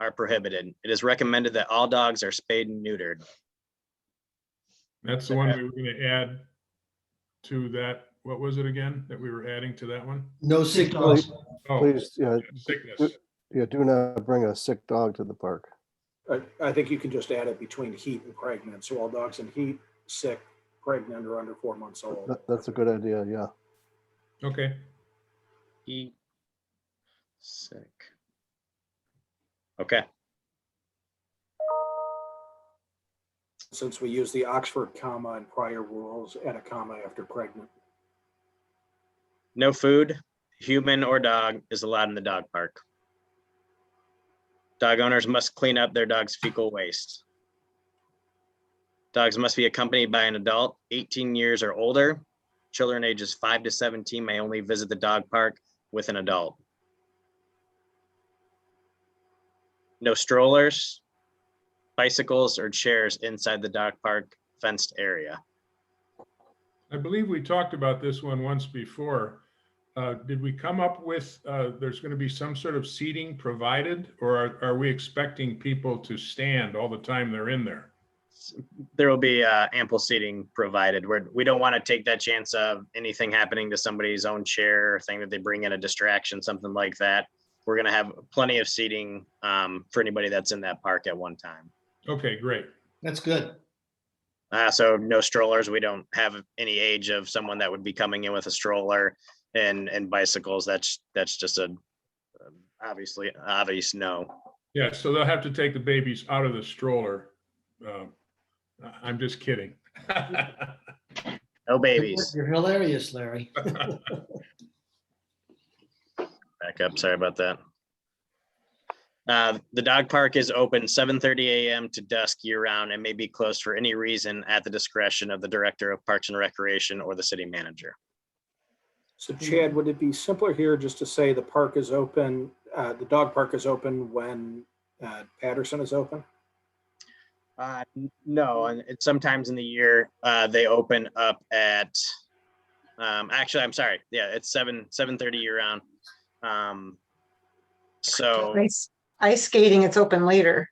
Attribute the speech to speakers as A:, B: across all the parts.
A: are prohibited. It is recommended that all dogs are spayed and neutered.
B: That's the one we were gonna add to that, what was it again, that we were adding to that one?
C: No sick dogs.
B: Oh,
D: Please, yeah,
B: sickness.
D: yeah, do not bring a sick dog to the park.
E: I, I think you can just add it between heat and pregnant. So all dogs in heat, sick, pregnant, or under four months old.
D: That, that's a good idea, yeah.
B: Okay,
A: He sick. Okay,
E: Since we use the Oxford comma in prior rules, add a comma after pregnant.
A: no food, human or dog is allowed in the dog park. Dog owners must clean up their dog's fecal waste. Dogs must be accompanied by an adult eighteen years or older. Children ages five to seventeen may only visit the dog park with an adult. No strollers, bicycles or chairs inside the dog park fenced area.
B: I believe we talked about this one once before. Uh, did we come up with, uh, there's gonna be some sort of seating provided? Or are, are we expecting people to stand all the time they're in there?
A: there will be uh, ample seating provided. We're, we don't want to take that chance of anything happening to somebody's own chair or thing that they bring in a distraction, something like that. We're going to have plenty of seating um, for anybody that's in that park at one time.
B: Okay, great.
C: That's good.
A: Uh, so no strollers. We don't have any age of someone that would be coming in with a stroller and and bicycles. That's that's just a um, obviously obvious no.
B: Yeah, so they'll have to take the babies out of the stroller. Uh, I- I'm just kidding.
A: No babies.
C: You're hilarious, Larry.
A: back up. Sorry about that. Uh, the dog park is open seven thirty AM to dusk year round and may be closed for any reason at the discretion of the Director of Parks and Recreation or the city manager.
E: So Chad, would it be simpler here just to say the park is open, uh, the dog park is open when uh, Patterson is open?
A: Uh, n- no, and it's sometimes in the year, uh, they open up at, um, actually, I'm sorry. Yeah, it's seven, seven thirty year round. Um, so.
F: Ice ice skating, it's open later.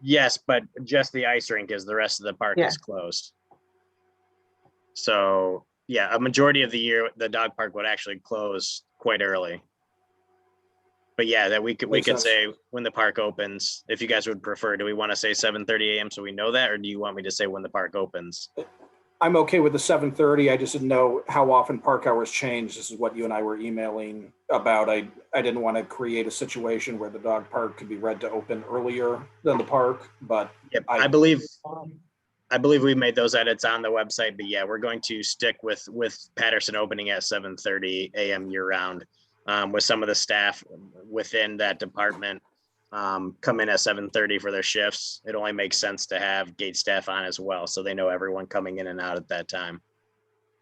A: Yes, but just the ice rink is the rest of the park
F: Yeah.
A: is closed. So, yeah, a majority of the year, the dog park would actually close quite early. But yeah, that we could, we
E: Makes
A: could
E: sense.
A: say when the park opens, if you guys would prefer, do we want to say seven thirty AM so we know that, or do you want me to say when the park opens?
E: I'm okay with the seven thirty. I just didn't know how often park hours change. This is what you and I were emailing about. I, I didn't want to create a situation where the dog park could be read to open earlier than the park, but
A: Yep,
E: I-
A: I believe, I believe we made those edits on the website, but yeah, we're going to stick with, with Patterson opening at seven thirty AM year round. Um, with some of the staff within that department, um, come in at seven thirty for their shifts. It only makes sense to have gate staff on as well, so they know everyone coming in and out at that time.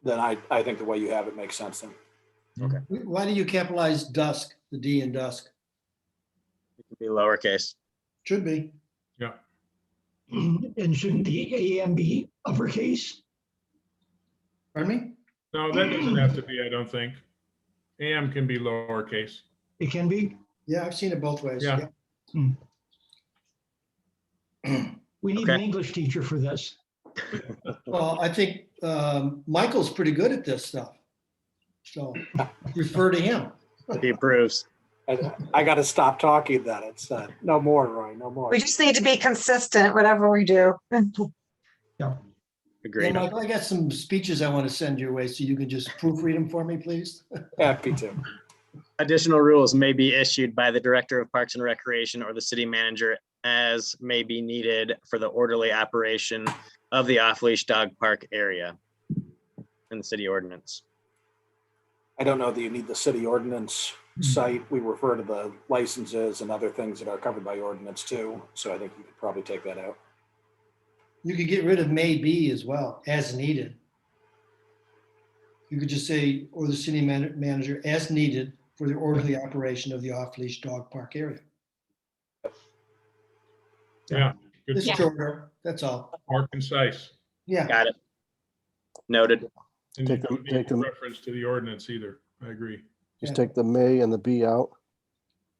E: then I, I think the way you have it makes sense then.
C: Why do you capitalize dusk, the D in dusk?
A: It could Be lowercase.
C: Should be.
G: And shouldn't the AM be uppercase?
C: Pardon me?
B: No, that doesn't have to be, I don't think. AM can be lowercase.
G: It can be.
C: Yeah, I've seen it both ways.
B: Yeah.
G: We need an
A: Okay.
G: English teacher for this.
C: Well, I think um, Michael's pretty good at this stuff. So refer to him.
A: He approves.
E: I, I got to stop talking then. It's uh, no more, Roy, no more.
F: We just need to be consistent, whatever we do.
C: Yeah,
A: Agreed.
C: Michael, I got some speeches I want to send your way, so you can just proofread them for me, please.
E: Happy to.
A: Additional rules may be issued by the Director of Parks and Recreation or the city manager as may be needed for the orderly operation of the off-leash dog park area in the city ordinance.
E: I don't know that you need the city ordinance
F: Mm-hmm.
E: site. We refer to the licenses and other things that are covered by ordinance too. So I think you could probably take that out.
C: You could get rid of may be as well, as needed. You could just say, or the city man- manager, as needed for the orderly operation of the off-leash dog park area.
B: Yeah, good,
C: It's shorter, that's all.
B: more concise.
C: Yeah,
A: Got it? Noted.
B: And you
D: Take them-
B: don't
D: take
B: need
D: them-
B: reference to the ordinance either. I agree.
D: Just
C: Yeah.
D: take the may and the be out.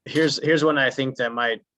A: Here's, here's one I think that might